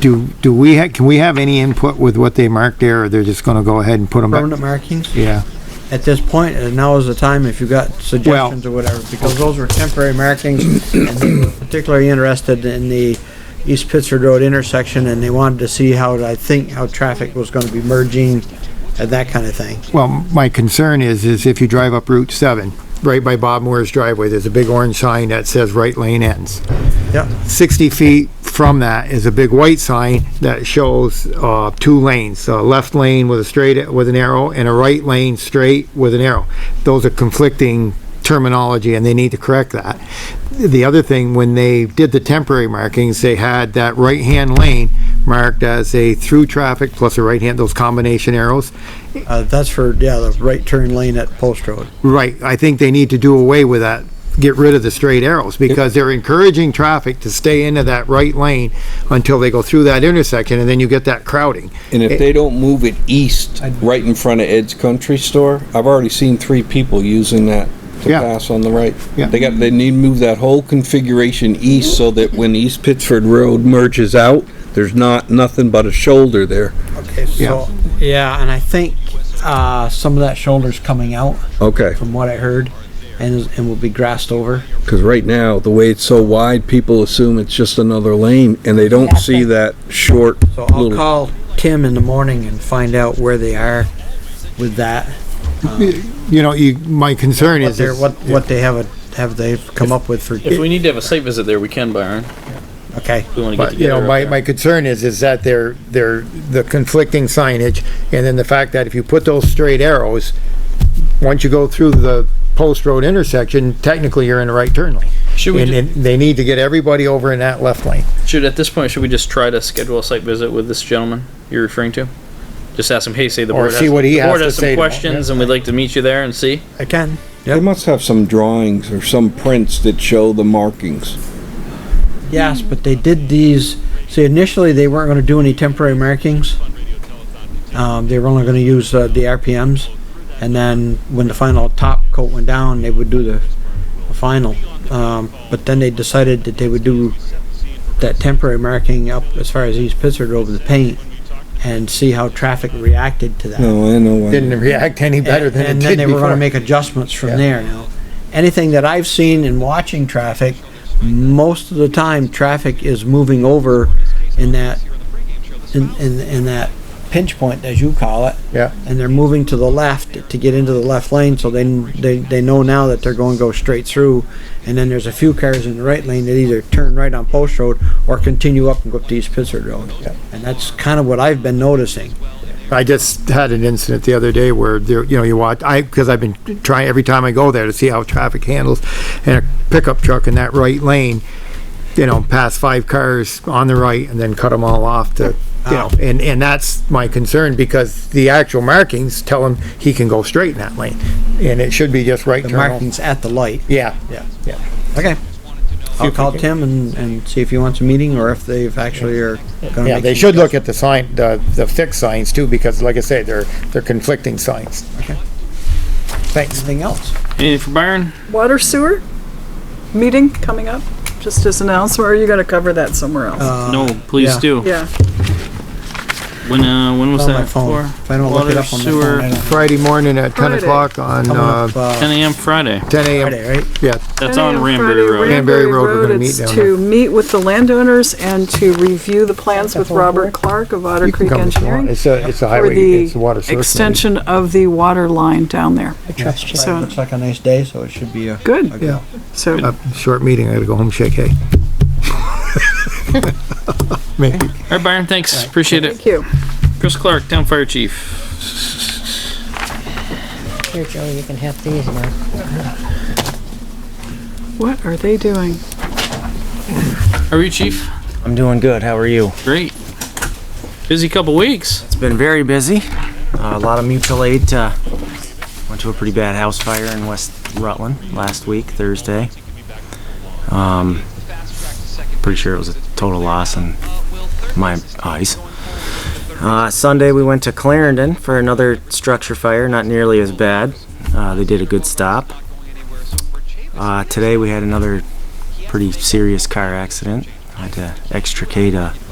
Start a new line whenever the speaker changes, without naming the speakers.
do, do we, ha- can we have any input with what they marked there, or they're just gonna go ahead and put them back?
permanent markings
Yeah,
at this point, and now is the time if you've got suggestions or whatever, because those were temporary markings. and they were Particularly interested in the East Pittsford Road intersection, and they wanted to see how, I think, how traffic was gonna be merging and that kind of thing.
well, my concern is, is if you drive up Route seven, right by Bob Moore's driveway, there's a big orange sign that says right lane ends.
Yep,
60 feet from that is a big white sign that shows uh, two lanes, a left lane with a straight, with an arrow, and a right lane straight with an arrow. Those are conflicting terminology, and they need to correct that. The other thing, when they did the temporary markings, they had that right-hand lane marked as a through traffic plus a right-hand, those combination arrows.
uh, that's for, yeah, the right turn lane at Post Road.
Right, I think they need to do away with that, get rid of the straight arrows, because they're encouraging traffic to stay into that right lane until they go through that intersection, and then you get that crowding. Eh,
And if they don't move it east, right in front of Ed's Country Store, I've already seen three people using that to
Yeah.
pass on the right.
Yeah.
They got, they need to move that whole configuration east so that when East Pittsford Road merges out, there's not, nothing but a shoulder there.
Okay, so, yeah, and I think, uh, some of that shoulder's coming out,
Okay,
from what I heard, and, is- and will be grassed over.
because right now, the way it's so wide, people assume it's just another lane and they don't see that short
So I'll
little.
call Tim in the morning and find out where they are with that.
You know, you, my concern
What
is,
they're,
is-
what, what they have, a- have they come up with for,
If we need to have a site visit there, we can, Byron.
okay.
We want to get
but, you
together.
know,
up
my,
there.
my concern is, is that they're, they're, the conflicting signage, and then the fact that if you put those straight arrows, once you go through the post road intersection, technically you're in the right turn lane.
Should we
And,
ju-
and they need to get everybody over in that left lane.
should at this point should we just try to schedule a site visit with this gentleman you're referring to? Just ask him. Hey, say the
Or
board
see
has,
what he
the
has
board
to
has some
say to him.
questions, and we'd like to meet you there and see.
I can.
They must have some drawings or some prints that show the markings.
Yes, but they did these, see initially they weren't gonna do any temporary markings. Um, they were only gonna use, uh, the RPMs. And then when the final top coat went down, they would do the the final. Um, but then they decided that they would do that temporary marking up as far as East Pittsford over the paint and see how traffic reacted to that.
No, I know. I-
Didn't react any better than it
and
did before.
then they were going to make adjustments from
Yeah.
there. Now, anything that I've seen in watching traffic, most of the time traffic is moving over in that in, in, in that pinch point as you call it,
Yeah.
and they're moving to the left to get into the left lane. So they they, they know now that they're going to go straight through, and then there's a few cars in the right lane that either turn right on Post Road or continue up and go up to East Pittsford Road. And that's kind of what I've been noticing.
I just had an incident the other day where there, you know, you watch, I, because I've been trying every time I go there to see how traffic handles, and a pickup truck in that right lane, you know, past five cars on the right and then cut them all off to, you know,
Ah.
and, and that's my concern because the actual markings tell him he can go straight in that lane, and it should be just right
The
turn. only.
markings at the light.
Yeah,
Yeah.
Yeah.
Okay. I'll
if we
call
can-
Tim and, and see if he wants a meeting or if they've actually are gonna.
yeah,
make
they
some
should look at the sign, the, the fixed signs too, because like I say, they're, they're conflicting signs.
Okay.
Thanks.
Anything else?
Anything for Byron?
Water sewer meeting coming up, just as an announcement, or are you gonna cover that somewhere
Uh,
else?
no, please
Uh, yeah.
do.
Yeah,
When uh, when was
On
that
my phone.
for?
If I don't look
Water
it up on my
sewer.
phone, I don't.
Friday morning at ten
Friday.
o'clock on,
Coming
uh,
up, uh,
10 a.m. Friday.
ten AM.
Friday, right?
Yeah,
That's
10
on
a.m.
Ranbury
Friday,
Road.
Ranbury Road, we're gonna
Road,
meet
it's
down
To meet with the landowners and to review the plans with Robert Clark of Otter
you can
Creek
come if you want.
Engineering
It's a, it's a
for
highway, it's a water
the
source.
extension of the water line down there.
Trust you.
So-
Looks like a nice day, so it should be a.
Good,
Yeah, Uh,
so,
a short meeting, I gotta go home, shake hay. Maybe.
All right, Byron. Thanks. Appreciate it.
thank you.
Chris Clark, town fire chief.
Here, Joe, you can have these now.
What are they doing?
How are you, chief?
I'm doing good. How are you?
Great. Busy couple weeks.
It's been very busy. Uh, a lot of mutual aid. Uh, went to a pretty bad house fire in West Rutland last week, Thursday. Um, pretty sure it was a total loss in my eyes. Uh, Sunday we went to Clarendon for another structure fire, not nearly as bad. Uh, they did a good stop. Uh, today we had another pretty serious car accident. I had to extricate a